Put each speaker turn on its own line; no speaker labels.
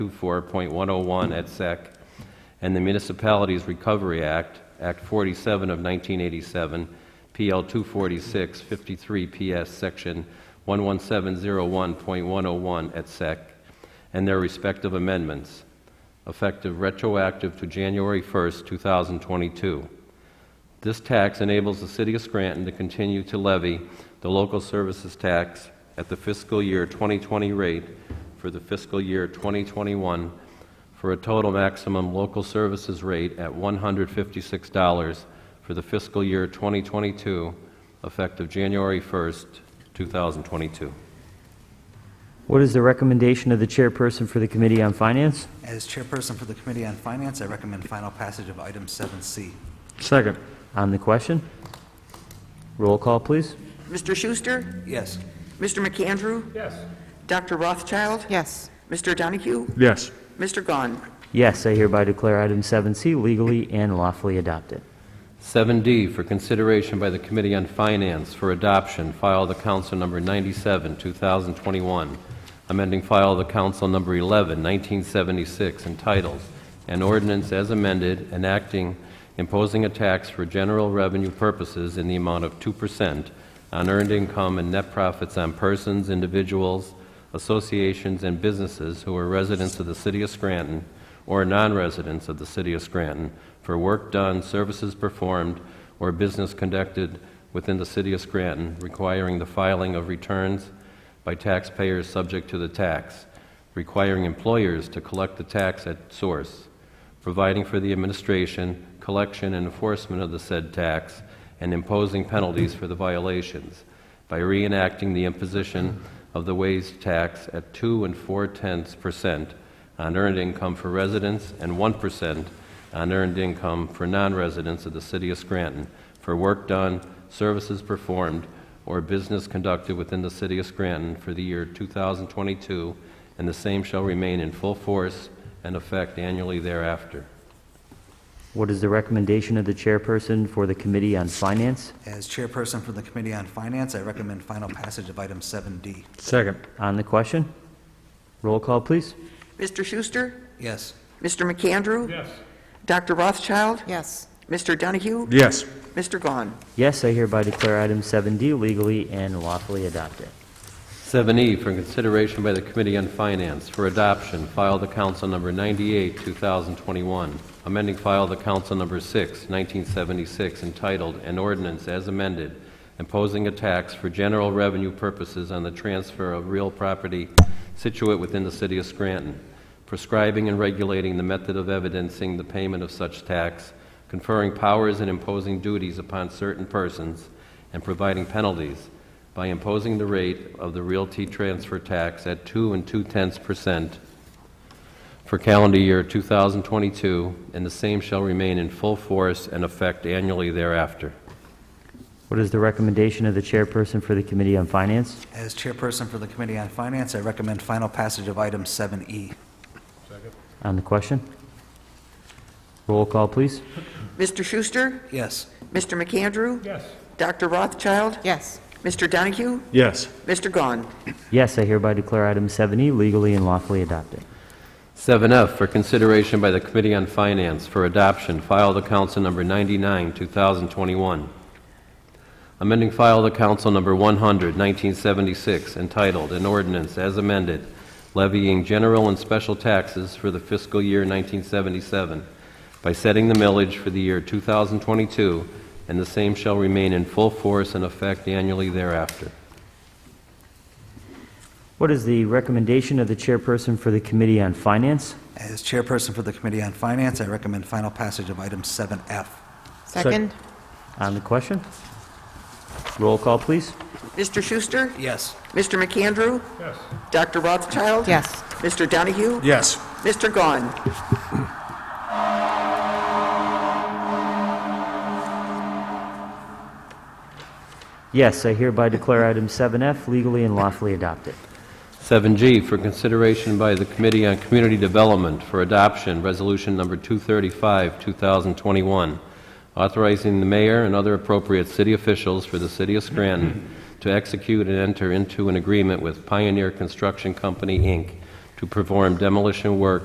24.101 et sec, and the Municipalities Recovery Act, Act 47 of 1987, PL 246, 53 PS, Section 11701.101 et sec, and their respective amendments, effective retroactive to January 1st, 2022. This tax enables the city of Scranton to continue to levy the local services tax at the fiscal year 2020 rate for the fiscal year 2021 for a total maximum local services rate at $156 for the fiscal year 2022, effective January 1st, 2022.
What is the recommendation of the chairperson for the Committee on Finance?
As chairperson for the Committee on Finance, I recommend final passage of item 7C.
Second. On the question? Roll call, please.
Mr. Schuster?
Yes.
Mr. McAndrew? Yes. Dr. Rothschild?
Yes.
Mr. Donahue?
Yes.
Mr. Gahn?
Yes, I hereby declare item 7C legally and lawfully adopted.
7D for consideration by the Committee on Finance for adoption, file the council number 97, 2021, amending file the council number 11, 1976, entitled, "An Ordinance as Amended Enacting Imposing a Tax for General Revenue Purposes in the Amount of 2% on Earned Income and Net Profits on Persons, Individuals, Associations, and Businesses who are residents of the City of Scranton or non-residents of the City of Scranton for work done, services performed, or business conducted within the City of Scranton, requiring the filing of returns by taxpayers subject to the tax, requiring employers to collect the tax at source, providing for the administration, collection, and enforcement of the said tax, and imposing penalties for the violations by reenacting the imposition of the wage tax at 2 and 4 tenths percent on earned income for residents and 1% on earned income for non-residents of the city of Scranton for work done, services performed, or business conducted within the city of Scranton for the year 2022, and the same shall remain in full force and effect annually thereafter.
What is the recommendation of the chairperson for the Committee on Finance?
As chairperson for the Committee on Finance, I recommend final passage of item 7D.
Second.
On the question? Roll call, please.
Mr. Schuster?
Yes.
Mr. McAndrew? Yes. Dr. Rothschild?
Yes.
Mr. Donahue?
Yes.
Mr. Gahn?
Yes, I hereby declare item 7D legally and lawfully adopted.
7E E for consideration by the Committee on Finance for adoption, file the council number 98, 2021, amending file the council number 6, 1976, entitled "An Ordinance as Amended Imposing a Tax for General Revenue Purposes on the Transfer of Real Property Situate Within the City of Scranton, Prescribing and Regulating the Method of Evidencing the Payment of Such Tax, Conferring Powers and Imposing Duties Upon Certain Persons, and Providing Penalties by imposing the rate of the realty transfer tax at 2 and 2 tenths percent for calendar year 2022, and the same shall remain in full force and effect annually thereafter.
What is the recommendation of the chairperson for the Committee on Finance?
As chairperson for the Committee on Finance, I recommend final passage of item E. 7E.
On the question? Roll call, please.
Mr. Schuster?
Yes.
Mr. McAndrew? Yes. Dr. Rothschild?
Yes.
Mr. Donahue?
Yes.
Mr. Gahn?
Yes, I hereby declare item 7E legally and lawfully adopted.
7F for consideration by the Committee on Finance for adoption, file the council number 99, 2021. Amending file the council number 100, 1976, entitled "An Ordinance as Amended Levying General and Special Taxes for the Fiscal Year 1977 by Setting the Millage for the Year 2022, and the same shall remain in full force and effect annually thereafter."
What is the recommendation of the chairperson for the Committee on Finance?
As chairperson for the Committee on Finance, I recommend final passage of item 7F.
Second?
On the question? Roll call, please.
Mr. Schuster?
Yes.
Mr. McAndrew? Yes. Dr. Rothschild?
Yes.
Mr. Donahue?
Yes.
Mr. Gahn?
Yes, I hereby declare item 7F legally and lawfully adopted.
7G for consideration by the Committee on Community Development for Adoption, Resolution Number 235, 2021, authorizing the mayor and other appropriate city officials for the city of Scranton to execute and enter into an agreement with Pioneer Construction Company, Inc., to perform demolition work